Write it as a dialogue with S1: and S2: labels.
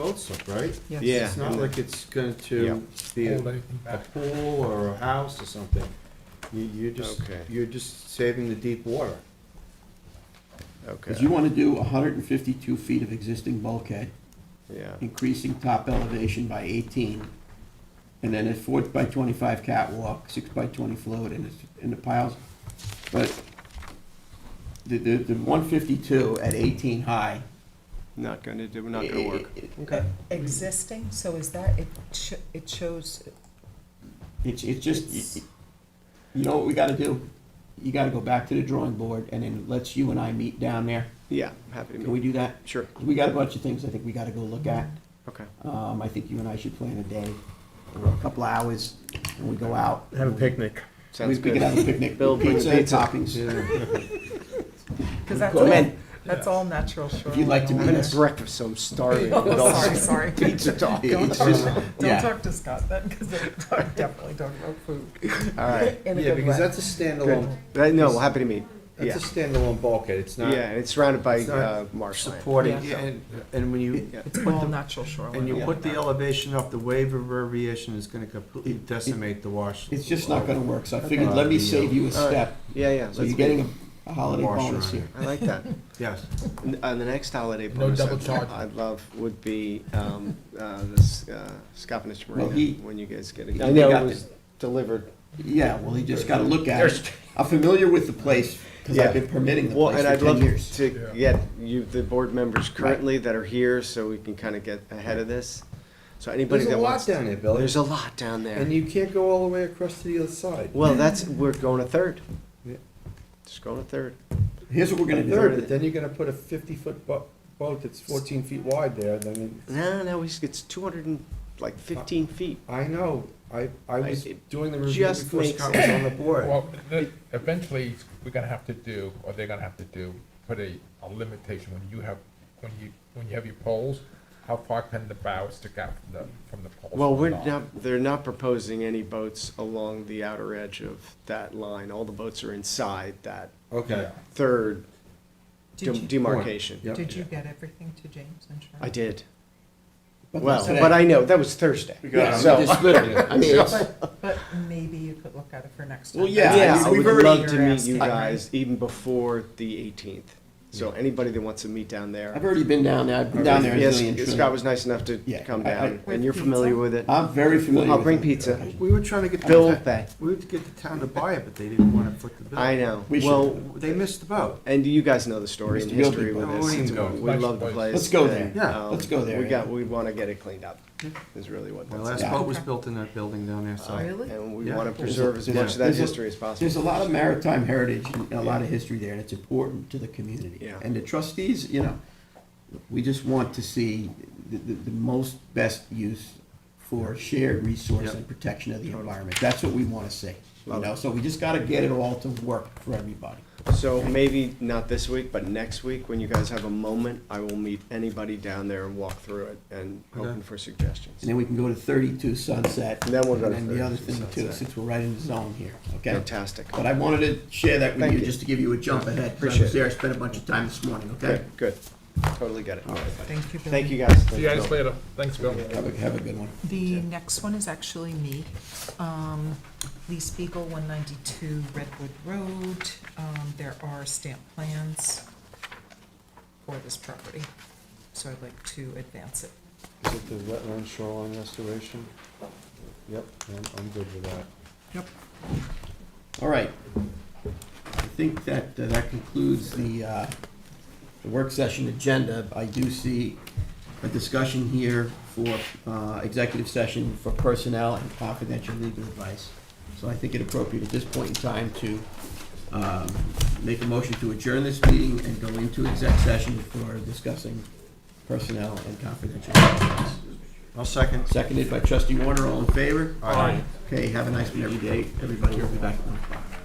S1: boats up, right?
S2: Yes.
S3: Yeah.
S1: It's not like it's going to be a a pool or a house or something. You, you're just,
S3: Okay.
S1: you're just saving the deep water.
S4: Because you
S3: Okay,
S4: want to do 152 feet of existing bulkhead,
S3: yeah,
S4: increasing top elevation by 18, and then a 4 by 25 catwalk, 6 by 20 float, and it's, and the piles. But the, the the 152 at 18 high.
S3: not gonna do, not gonna work.
S4: i- i-
S3: Okay.
S2: E-, Existing, so is that, it sho- it shows,
S4: It's, it's
S2: It's-
S4: just, y- y- you know what we gotta do? You gotta go back to the drawing board, and then let's you and I meet down there.
S3: Yeah, I'm happy to
S4: Can we
S3: meet.
S4: do that?
S3: Sure,
S4: We got a bunch of things I think we gotta go look at.
S3: okay.
S4: Um, I think you and I should plan a day, or a couple hours, and we go out.
S1: Have a picnic.
S3: Sounds
S4: We- We
S3: good.
S4: can have a picnic,
S3: Bill, bring
S4: pizza,
S3: pizza.
S4: toppings.
S2: because that's
S4: Come
S2: all,
S4: in.
S2: that's all natural shoreline.
S4: you'd like to
S3: I'm
S2: all
S4: meet
S3: gonna
S2: that.
S4: us.
S3: have breakfast, so I'm starving.
S2: Oh,
S3: With all
S2: sorry,
S3: this
S2: sorry.
S3: Pizza talk.
S2: Don't
S4: It's
S2: talk,
S4: just-
S2: don't
S4: yeah.
S2: talk to Scott then, because they're talk- definitely talking about food.
S3: All right,
S2: In
S1: Yeah,
S2: a good way.
S1: because that's a standalone,
S3: But no, happy to meet. Yeah,
S1: that's a standalone bulkhead. It's
S3: yeah,
S1: not
S3: and it's surrounded by
S1: It's not
S3: uh, marshland.
S1: supporting,
S2: Yeah.
S1: and, and when you,
S3: Yeah.
S2: It's
S1: put
S2: all
S1: the-
S2: natural shoreline.
S1: and you
S2: all
S1: put the
S2: that.
S1: elevation up, the wave of variation is gonna completely decimate the wash.
S4: It's just not gonna work, so I figured, let me save you a
S3: All right.
S4: step,
S3: Yeah, yeah.
S4: so
S3: let's
S4: you're getting
S3: meet.
S4: a- a holiday
S1: Washer
S4: bonus
S1: on
S4: here.
S3: I like that.
S1: Yes.
S3: N- Uh, the next holiday
S5: No
S3: bonus
S5: double
S3: I'd,
S5: charge.
S3: I'd love would be um, uh, this uh, Scottish Marina
S4: Well, he-
S3: when you guys get it.
S4: he
S3: I know
S4: got
S3: it was delivered.
S4: Yeah, well, you just gotta look at it. I'm familiar with the place, because
S3: Yeah.
S4: I've been permitting the
S3: Well,
S4: place
S3: and I'd
S4: for ten
S3: love
S4: years.
S3: to
S5: Yeah.
S3: get you the board members currently that are here, so we can kind of get ahead of this. So anybody
S1: There's a
S3: that wants
S1: lot down there, Billy.
S3: there's a lot down there.
S1: And you can't go all the way across to the other side.
S3: well, that's we're going a third.
S1: Yeah.
S3: Just going a third.
S4: Here's what we're
S1: A
S4: gonna
S1: third,
S4: do.
S1: but then you're gonna put a fifty-foot boat, boat that's fourteen feet wide there, then, it-
S3: No, no, it's, it's 200 and like 15 feet.
S1: I know, I, I was
S3: It
S1: doing the review
S3: just
S1: before
S3: makes
S1: Scott was on the board.
S5: Well, the- eventually, we're gonna have to do, or they're gonna have to do, put a, a limitation when you have, when you, when you have your poles, how far can the bow stick out from the, from the poles?
S3: Well,
S5: or
S3: we're not, they're not proposing any boats along the outer edge of that line. All the boats are inside that
S1: Okay.
S3: third
S2: Did
S3: dem-
S2: you-
S3: demarcation.
S1: Yep.
S2: Did you get everything to James and Sharon?
S3: I did.
S4: But
S3: Well,
S4: that's today.
S3: but I know, that was Thursday.
S4: Yeah, we
S3: So,
S4: just literally-
S3: I mean, it's-
S2: But, but maybe you could look at it for next time.
S4: Well,
S2: That's
S4: yeah,
S3: yeah,
S4: mean,
S3: I
S2: all
S3: would
S4: we've
S2: you're
S3: love to meet you
S2: asking, right?
S3: guys even before the eighteenth. So anybody that wants to meet down there.
S4: I've already been down there, I've been down there a
S3: Yes,
S4: zillion
S3: Scott
S4: times.
S3: was nice enough to
S4: Yeah,
S3: come
S4: I- I-
S3: down, and you're
S2: With
S3: familiar
S2: pizza?
S3: with it.
S4: I'm very familiar with it.
S3: I'll bring pizza.
S1: We were trying to get. the
S3: Bill
S1: ta-
S3: Bay.
S1: We would get the town to buy it, but they didn't wanna foot the bill.
S3: I know.
S4: We should-
S3: Well,
S1: They missed the boat.
S3: and you guys know the story and
S4: Mr. Gilby.
S3: history with
S1: Oh,
S3: this.
S1: we can
S3: It's-
S1: go.
S3: We
S5: Nice
S3: love the
S5: place.
S3: place.
S4: Let's go
S3: and,
S4: there.
S1: Yeah.
S3: um,
S4: Let's go there,
S3: We got,
S4: yeah.
S3: we want to get it cleaned up, is really what
S1: My
S3: that's
S1: last
S4: Yeah.
S3: about.
S1: boat was built in that building down there, so.
S2: Really?
S3: And we
S1: Yeah.
S3: want to preserve as
S4: There's a-
S3: much of that
S4: there's a-
S3: history as
S4: There's a
S3: possible.
S4: lot of maritime heritage and a lot of history there, and it's important to the community.
S3: Yeah.
S4: And the trustees, you know, we just want to see the, the, the most best use for shared resource
S1: Yep.
S4: and protection of the environment. That's what we wanna see, you
S3: Love
S4: know,
S3: it.
S4: so we just gotta get it all to work for everybody.
S3: So maybe not this week, but next week, when you guys have a moment, I will meet anybody down there and walk through it and
S1: Okay.
S3: open for suggestions.
S4: And then we can go to thirty-two Sunset.
S3: And then we'll go to
S4: And then the other
S3: 32
S4: thing too,
S3: Sunset.
S4: since we're right in the zone here, okay?
S3: Fantastic.
S4: But I wanted to share that with
S3: Thank
S4: you,
S3: you.
S4: just to give you a jump ahead. 'cause I
S3: Appreciate it.
S4: was there, I spent a bunch of time this morning, okay?
S3: Good, good. Totally get it.
S2: Thank you, Billy.
S3: Thank you, guys.
S5: See you guys later, thanks, Bill.
S4: Have a, have a good one.
S2: The next one is actually me. Um, Lee Spiegel, 192 Redwood Road. Um, There are stamp plans for this property, so I'd like to advance it.
S1: Is it the wetland shoreline restoration? Yep, I'm, I'm good with that.
S4: All right. I think that, uh, that concludes the, uh, the work session agenda. I do see a discussion here for, uh, executive session for personnel and confidential legal advice. So I think it appropriate at this point in time to, um, make a motion to adjourn this meeting and go into exec session for discussing personnel and confidential legal advice.
S1: I'll second.
S4: Seconded by trustee Warner, all in favor?
S1: Aye.
S4: Okay, have a nice one every day, everybody, we'll be back at one o'clock.